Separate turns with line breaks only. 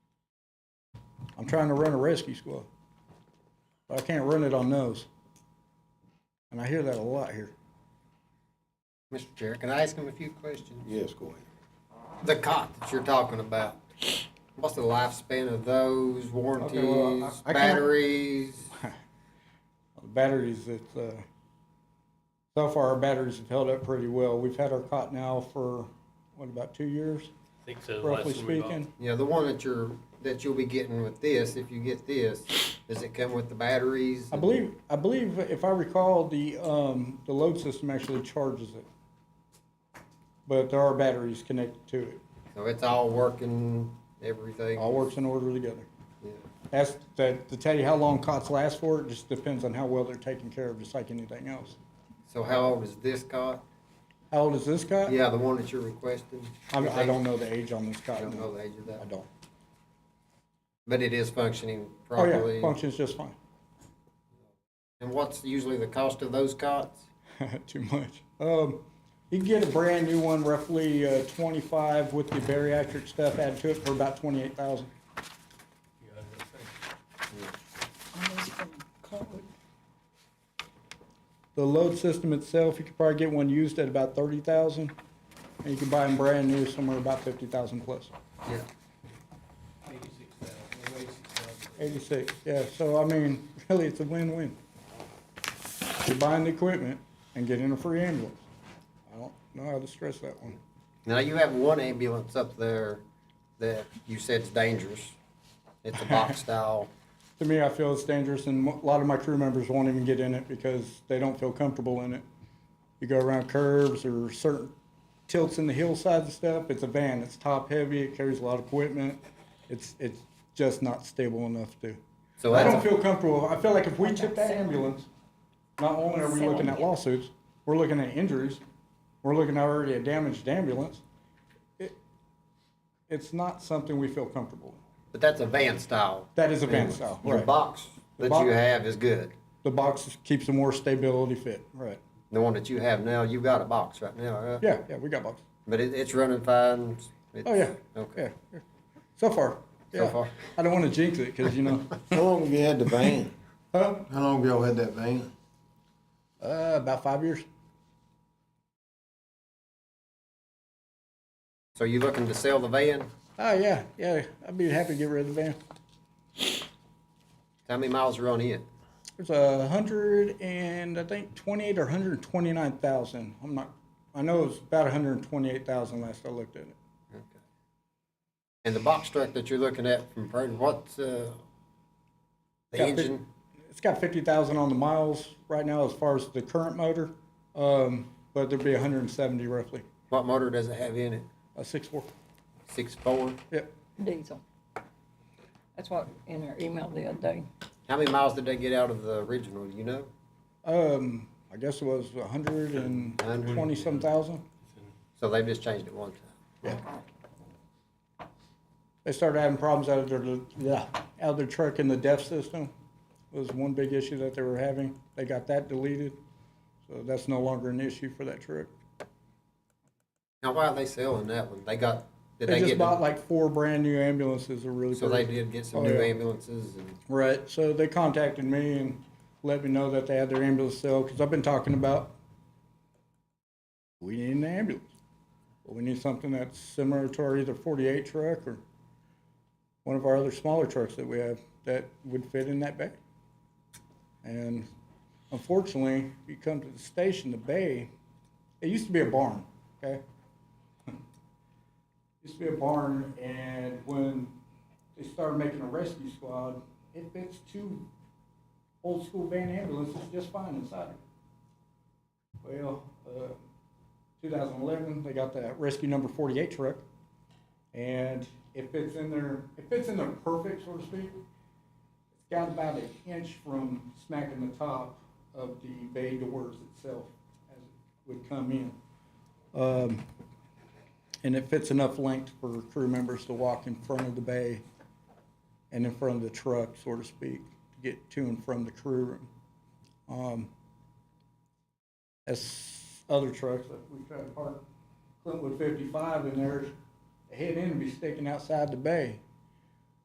I'm trying to run a rescue squad. But I can't run it on those. And I hear that a lot here.
Mr. Chair, can I ask him a few questions?
Yes, go ahead.
The cot that you're talking about, what's the lifespan of those,
well, I-
warranties,
I can't-
batteries?
The batteries that, uh, so far our batteries have held up pretty well. We've had our cot now for, what, about two years,
I think so. the last
roughly
one we bought.
speaking?
Yeah, the one that you're, that you'll be getting with this, if you get this, does it come with the batteries?
I believe, I believe if I recall, the, um, the load system actually charges it. But there are batteries connected to it.
So it's all working, everything?
All works in order together.
Yeah.
That's, that, to tell you how long cots last for, it just depends on how well they're taken care of, just like anything else.
So how old is this cot?
How old is this cot?
Yeah, the one that you're requesting?
I, I don't know the age on this
I
cot.
don't know
no.
the age of
I
that,
don't.
but it is functioning
Oh, yeah,
properly?
functions just fine.
And what's usually the cost of those cots?
Too much. Um, you can get a brand new one, roughly uh, twenty-five with the bariatric stuff added to it for about twenty-eight thousand. The load system itself, you could probably get one used at about thirty thousand, and you can buy them brand new somewhere about fifty thousand plus.
Yeah.
Eighty-six, yeah, so I mean, really, it's a win-win. You're buying the equipment and getting a free ambulance. I don't know how to stress that one.
Now you have one ambulance up there that you said's dangerous. It's a box style.
To me, I feel it's dangerous, and a lot of my crew members won't even get in it because they don't feel comfortable in it. You go around curves or certain tilts in the hillsides and stuff, it's a van, it's top-heavy, it carries a lot of equipment. It's, it's just not stable enough to.
So
I
that's
don't feel comfortable. I feel like if we took that ambulance, not only are we looking at lawsuits, we're looking at injuries, we're looking at already a damaged ambulance. It, it's not something we feel comfortable. in.
but that's a van style.
That is a van style,
Your
right.
box
The
that
box-
you have is good.
The box keeps the more stability fit. Right.
The one that you have now, you got a box right now, right?
Yeah, yeah, we got boxes.
But it, it's running fine. It's,
Oh, yeah.
Okay.
Yeah, yeah. So far.
So
yeah.
far.
I don't want to jinx it because, you know,
How long have you had the van?
huh?
How long have y'all had that van?
Uh, about five years.
So you looking to sell the van?
Oh, yeah, yeah. I'd be happy to get rid of the van.
How many miles are on it?
There's a hundred and I think twenty-eight or hundred and twenty-nine thousand. I'm not, I know it was about hundred and twenty-eight thousand last I looked at it.
And the box truck that you're looking at from Prairie, what's uh, the
Got fif-
engine?
It's got fifty thousand on the miles right now as far as the current motor, um, but there'd be hundred and seventy roughly,
What motor does it have in it?
a six-four.
Six four.
Yep.
diesel. That's what in our email the other day.
How many miles did they get out of the original? Do you know?
Um, I guess it was a hundred and twenty-some thousand.
So they've just changed it one time.
They started having problems out of their, yeah, out of their truck in the DEF system was one big issue that they were having. They got that deleted, so that's no longer an issue for that truck.
Now, why are they selling that one? They got, did
They
they
just
get,
bought like four brand new ambulances are really
so they
great.
did get some
Oh,
new
yeah.
ambulances and,
Right, so they contacted me and let me know that they had their ambulance sale, because I've been talking about, we need an ambulance. But we need something that's similar to our either forty-eight truck or one of our other smaller trucks that we have that would fit in that bay. And unfortunately, you come to the station, the bay, it used to be a barn, okay? used to be a barn, and when they started making a rescue squad, it fits two old school van ambulances just fine inside it. Well, uh, 2011, they got that rescue number 48 truck, and it fits in there. It fits in there perfect, so to speak. It's got about an inch from smacking the top of the bay doors itself as it would come in. Um, and it fits enough length for crew members to walk in front of the bay and in front of the truck, so to speak, to get to and from the crew room. Um, as other trucks, like we try to park Clintwood fifty-five in there, the head end would be sticking outside the bay.